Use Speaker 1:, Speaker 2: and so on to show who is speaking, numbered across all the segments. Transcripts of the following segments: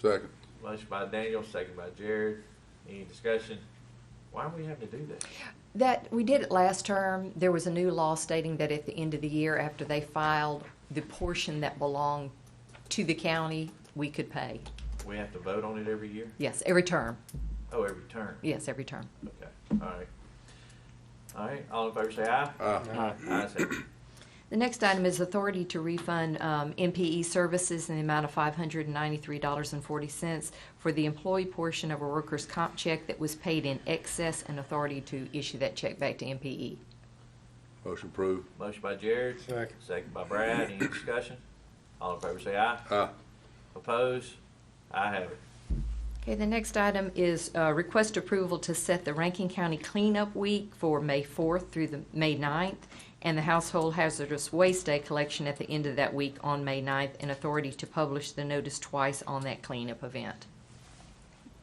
Speaker 1: Second.
Speaker 2: Motion by Daniel, second by Jared. Any discussion? Why are we having to do that?
Speaker 3: That, we did it last term. There was a new law stating that at the end of the year, after they filed the portion that belonged to the county, we could pay.
Speaker 2: We have to vote on it every year?
Speaker 3: Yes, every term.
Speaker 2: Oh, every term?
Speaker 3: Yes, every term.
Speaker 2: Okay, all right. All right, all in favor say aye.
Speaker 1: Aye.
Speaker 2: Ayes have it.
Speaker 3: The next item is authority to refund um, MPE services in the amount of $593.40 for the employee portion of a workers' comp check that was paid in excess and authority to issue that check back to E. MPE.
Speaker 1: Motion approved.
Speaker 2: Motion by Jared.
Speaker 4: Second.
Speaker 2: Second by Brad. Any discussion? All in favor say aye.
Speaker 1: Aye.
Speaker 2: Opposed? I have it.
Speaker 3: Okay, the next item is uh, request approval to set the Rankin County Cleanup Week for May 4th through the May 9th, and the Household Hazardous Waste Day collection at the end of that week on May 9th, and authority to publish the notice twice on that cleanup event.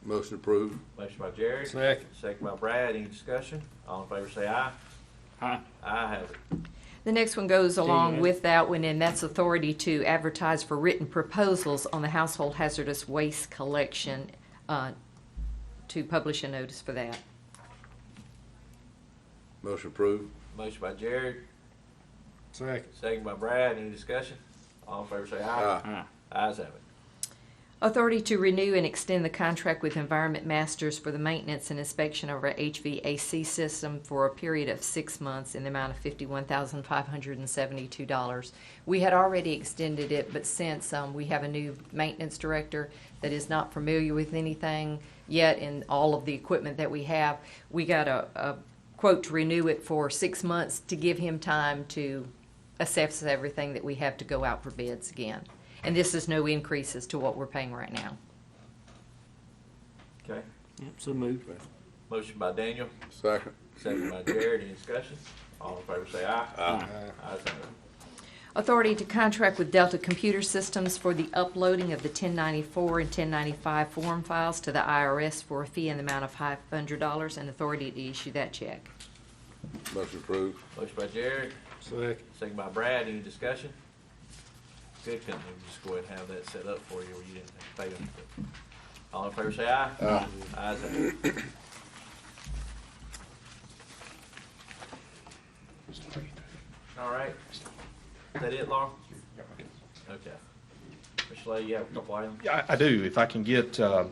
Speaker 1: Motion approved.
Speaker 2: Motion by Jared.
Speaker 4: Second.
Speaker 2: Second by Brad. Any discussion? All in favor say aye.
Speaker 4: Aye.
Speaker 2: I have it.
Speaker 3: The next one goes along
Speaker 4: yeah.
Speaker 3: with that one, and that's authority to advertise for written proposals on the Household Hazardous Waste Collection, uh, to publish a notice for that.
Speaker 1: Motion approved.
Speaker 2: Motion by Jared.
Speaker 4: Second.
Speaker 2: Second by Brad. Any discussion? All in favor say aye.
Speaker 1: Aye.
Speaker 2: Ayes have it.
Speaker 3: Authority to renew and extend the contract with Environment Masters for the maintenance and inspection of our HVAC system for a period of six months in the amount of fifty-one thousand five hundred and seventy-two dollars. We had already extended it, but since, um, we have a new maintenance director that is not familiar with anything yet in all of the equipment that we have, we got a, a quote to renew it for six months to give him time to assess everything that we have to go out for bids again. And this is no increases to what we're paying right now.
Speaker 2: Okay.
Speaker 4: Yep, so moved.
Speaker 2: Motion by Daniel.
Speaker 1: Second.
Speaker 2: Second by Jared. Any discussion? All in favor say aye.
Speaker 4: Aye.
Speaker 2: Ayes have it.
Speaker 3: Authority to contract with Delta Computer Systems for the uploading of the 1094 and 1095 form files to the IRS for a fee in the amount of $500 and authority to issue that check.
Speaker 1: Motion approved.
Speaker 2: Motion by Jared.
Speaker 4: Second.
Speaker 2: Second by Brad, any discussion? Good company, we just go ahead and have that set up for you where you didn't have to pay them. All in favor say aye. Aye. Ayes have it. All right. Is that it, Laura? Okay. Mr. Lay, you have a couple items?
Speaker 5: Yeah, I I do. If I can get, uh,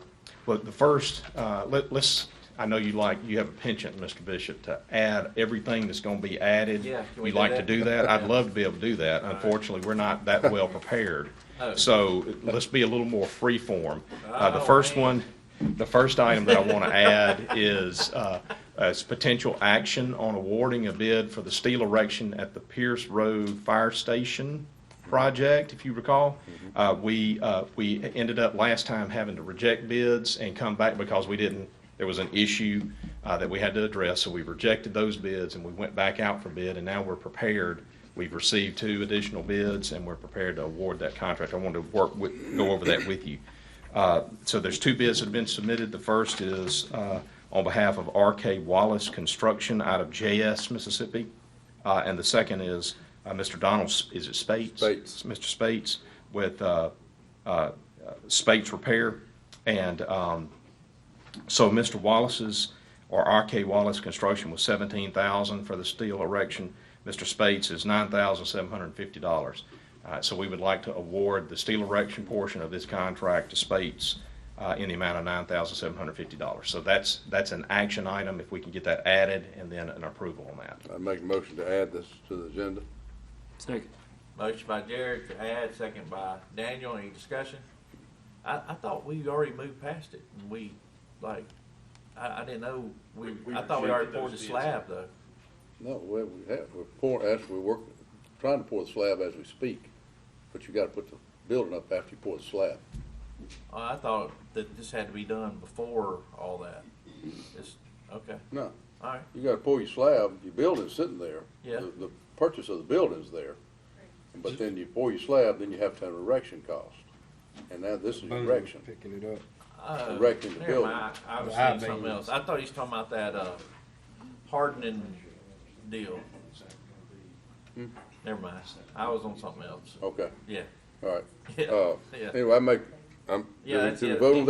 Speaker 5: well, the first, uh, let- let's, I know you like, you have a penchant, Mr. Bishop, to add everything that's going to be added.
Speaker 2: Yeah, can we
Speaker 5: You
Speaker 2: do
Speaker 5: like to
Speaker 2: that?
Speaker 5: do that? I'd love to be able to do that. Unfortunately, we're not that well prepared.
Speaker 2: Oh.
Speaker 5: So let's be a little more freeform. Uh, The
Speaker 2: Oh,
Speaker 5: first
Speaker 2: man.
Speaker 5: one, the first item that I want to add is, uh, is potential action on awarding a bid for the steel erection at the Pierce Road Fire Station project, if you recall. Uh, we, uh, we ended up last time having to reject bids and come back because we didn't, there was an issue, uh, that we had to address, so we rejected those bids and we went back out for bid, and now we're prepared. We've received two additional bids and we're prepared to award that contract. I wanted to work with, go over that with you. Uh, So there's two bids that have been submitted. The first is uh, on behalf of RK Wallace Construction out of JS, Mississippi. Uh, And the second is uh, Mr. Donald, S- is it Spates?
Speaker 1: Spates.
Speaker 5: Mr. Spates with uh, uh, Spates Repair. And um, so Mr. Wallace's, or RK Wallace Construction was seventeen thousand for the steel erection. Mr. Spates is nine thousand seven hundred and fifty dollars. Uh, so we would like to award the steel erection portion of this contract to Spates, uh, in the amount of nine thousand seven hundred and fifty dollars. So that's, that's an action item, if we can get that added, and then an approval on that.
Speaker 1: I make a motion to add this to the agenda.
Speaker 4: Second.
Speaker 2: Motion by Jared to add, second by Daniel, any discussion? I, I thought we already moved past it, and we, like, I, I didn't know, we,
Speaker 6: We- we
Speaker 2: I thought we already
Speaker 6: rejected
Speaker 2: poured the
Speaker 6: those bids.
Speaker 2: slab, though.
Speaker 1: No, we we have, we're pouring, as we're working, trying to pour the slab as we speak, but you gotta put the building up after you pour the slab.
Speaker 2: Oh, I thought that this had to be done before all that. It's, okay,
Speaker 1: No,
Speaker 2: all right,
Speaker 1: you gotta pour your slab, your building's sitting there.
Speaker 2: Yeah.
Speaker 1: The- The purchase of the building's there, but then you pour your slab, then you have to have an erection cost. And now this is erection.
Speaker 4: Picking it up.
Speaker 2: Oh,
Speaker 1: Erecting the
Speaker 2: never
Speaker 1: building.
Speaker 2: mind. I was
Speaker 4: The high
Speaker 2: seeing something else.
Speaker 4: beams.
Speaker 2: I thought he was talking about that, uh, hardening deal.
Speaker 1: Hmm?
Speaker 2: Never mind, I was on something else,
Speaker 1: Okay,
Speaker 2: yeah.
Speaker 1: all right.
Speaker 2: Yeah,
Speaker 1: Uh,
Speaker 2: yeah.
Speaker 1: Anyway, I make I'm,
Speaker 2: Yeah,
Speaker 1: to the
Speaker 2: yeah.
Speaker 1: vote on